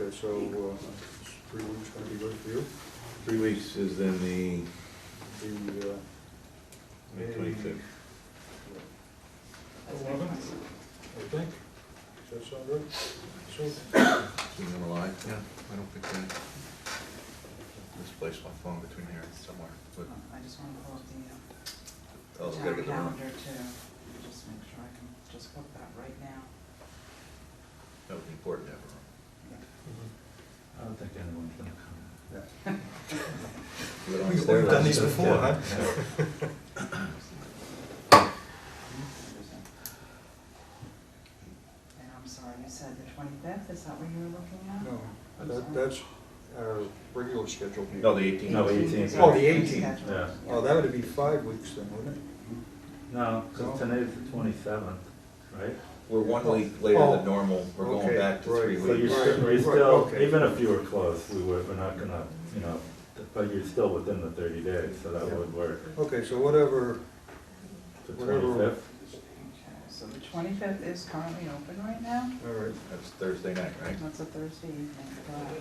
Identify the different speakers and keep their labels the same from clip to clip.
Speaker 1: Okay, so, uh, three weeks gonna be good for you?
Speaker 2: Three weeks is then the
Speaker 1: The, uh,
Speaker 2: May twenty-fifth.
Speaker 1: eleven, I think, does that sound right? So,
Speaker 2: Is it gonna lie? Yeah, I don't think I misplaced my phone between here and somewhere, but
Speaker 3: I just wanna pull up the
Speaker 2: I'll
Speaker 1: Oh,
Speaker 3: uh,
Speaker 2: gotta get
Speaker 3: town
Speaker 2: the room.
Speaker 3: calendar too, just make sure I can just book that right now.
Speaker 2: That would be important to have a room.
Speaker 4: I don't think anyone's gonna come.
Speaker 2: We don't
Speaker 5: We've
Speaker 2: have to worry
Speaker 5: done
Speaker 2: about
Speaker 5: these
Speaker 2: it.
Speaker 5: before, huh?
Speaker 3: And I'm sorry, you said the twenty-fifth, is that what you were looking at?
Speaker 1: no, that, that's our regular schedule.
Speaker 2: No, the eighteenth.
Speaker 4: No, the
Speaker 3: Eighteenth.
Speaker 4: 18th.
Speaker 1: Oh, the 18th.
Speaker 3: Scheduled,
Speaker 4: Yeah.
Speaker 1: Oh, that would be five weeks then, wouldn't it?
Speaker 4: No,
Speaker 1: No.
Speaker 4: because today's the twenty-seventh, right?
Speaker 2: We're one week later
Speaker 1: Oh,
Speaker 2: than normal, we're
Speaker 1: okay,
Speaker 2: going back to three
Speaker 1: right.
Speaker 4: So you're
Speaker 2: weeks.
Speaker 1: Right,
Speaker 4: still, you're
Speaker 1: right,
Speaker 4: still,
Speaker 1: okay.
Speaker 4: even if you were close, we were, we're not gonna, you know, but you're still within the thirty days, so that
Speaker 1: Yeah.
Speaker 4: would work.
Speaker 1: Okay, so whatever,
Speaker 4: The
Speaker 1: Whatever.
Speaker 4: twenty-fifth,
Speaker 3: Okay, so the twenty-fifth is currently open right now,
Speaker 1: all right,
Speaker 2: That's Thursday night, right?
Speaker 3: that's a Thursday evening, but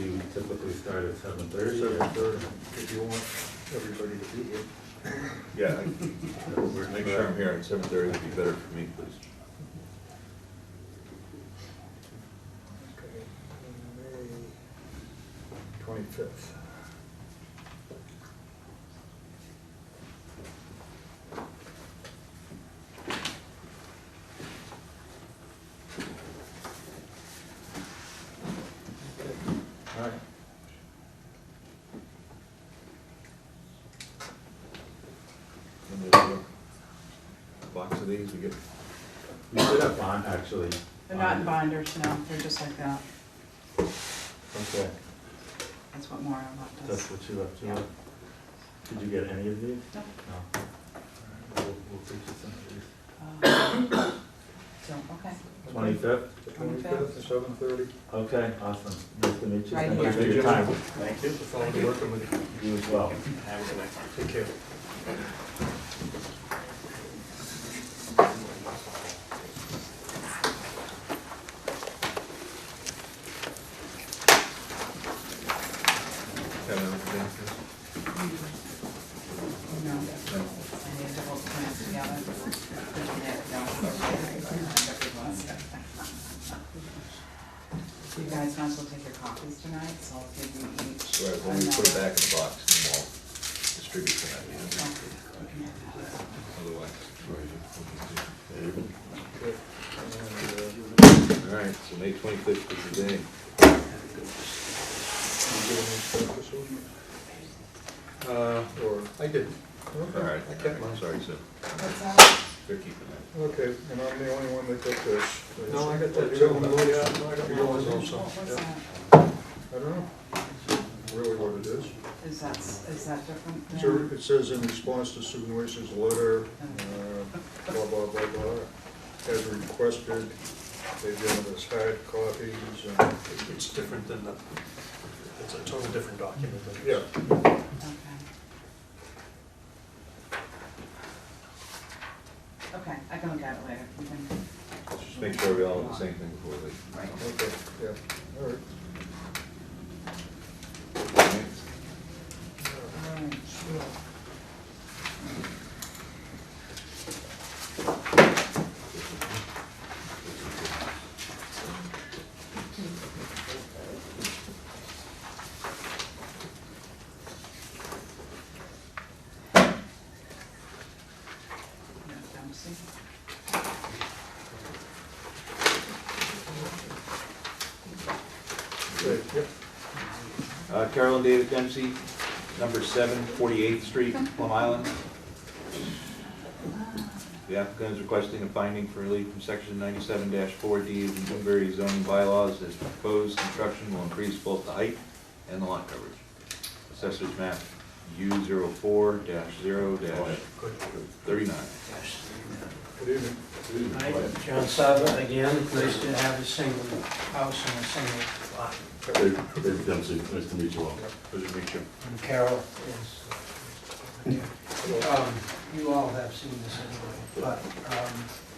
Speaker 4: you typically start at seven thirty.
Speaker 1: seven thirty, if you want everybody to be here.
Speaker 2: Yeah. Make sure I'm here at seven thirty would be better for me, please.
Speaker 1: Okay, and May twenty-fifth.
Speaker 4: All right.
Speaker 2: And we'll do a Box of these, we get,
Speaker 4: We should have bond, actually.
Speaker 3: They're not in
Speaker 4: bond.
Speaker 3: binders, no, they're just like that,
Speaker 4: Okay,
Speaker 3: that's what Mario left
Speaker 4: that's
Speaker 3: us.
Speaker 4: what you left,
Speaker 3: Yeah.
Speaker 4: to. Did you get any of these?
Speaker 3: No.
Speaker 4: No. All right, We'll, we'll teach you some of these.
Speaker 3: Uh, So, okay.
Speaker 4: Twenty-fifth?
Speaker 1: Twenty-fifth at seven thirty.
Speaker 4: Okay, awesome. Nice to meet you.
Speaker 3: Right
Speaker 4: Thank you for
Speaker 1: here.
Speaker 4: your time.
Speaker 5: Thank you.
Speaker 1: I'll working with you.
Speaker 4: You as well.
Speaker 5: Have a good night.
Speaker 1: Take care.
Speaker 2: Kevin, anything else?
Speaker 3: No,
Speaker 2: No.
Speaker 3: I need to hold plans together. You guys might as well take your copies tonight, so I'll give you each.
Speaker 2: Right, well, we put it
Speaker 3: another-
Speaker 2: back in the box and we'll distribute that, you know, otherwise.
Speaker 1: And, uh,
Speaker 2: All right, so May twenty-fifth is the day.
Speaker 1: You get any stuff this week? Uh, or, I didn't.
Speaker 2: All right,
Speaker 1: I
Speaker 2: all
Speaker 1: kept
Speaker 2: right,
Speaker 1: mine.
Speaker 2: sorry, so
Speaker 3: What's that?
Speaker 2: they're keeping that.
Speaker 1: Okay, and I'm the only one that got this.
Speaker 5: No, I got that Oh,
Speaker 1: You
Speaker 5: too.
Speaker 1: one, Louis? Yours also.
Speaker 3: What was
Speaker 1: Yeah.
Speaker 3: that?
Speaker 1: I don't know, really what it is.
Speaker 3: Is that, is that different than?
Speaker 1: So it says in response to Susan Wish's letter, uh, blah, blah, blah, blah, as requested, they've given us hard copies and,
Speaker 5: It's different than the, it's a totally different document. but it's-
Speaker 1: yeah.
Speaker 3: Okay. Okay, I can look at it later. We can-
Speaker 2: Just make sure we all have the same thing before they.
Speaker 3: Right.
Speaker 1: Okay, yeah, all right.
Speaker 2: All right.
Speaker 3: Alright, sure. Yeah, I'm seeing.
Speaker 1: Great, yep.
Speaker 2: Uh, Carol and David Dempsey, number seven, Forty-Eighth Street, Plum Island. The applicant is requesting a finding for relief from section ninety-seven four D of the Newbury zoning bylaws as proposed construction will increase both the height and the lot coverage. Assessors map U 4 zero thirty-nine.
Speaker 1: Good evening.
Speaker 6: Hi, John Sava again, nice to have a single house and a single lot.
Speaker 4: Dave Dempsey, nice to meet you all.
Speaker 2: Pleasure to meet you.
Speaker 6: And Carol is. Um, You all have seen this anyway, but um,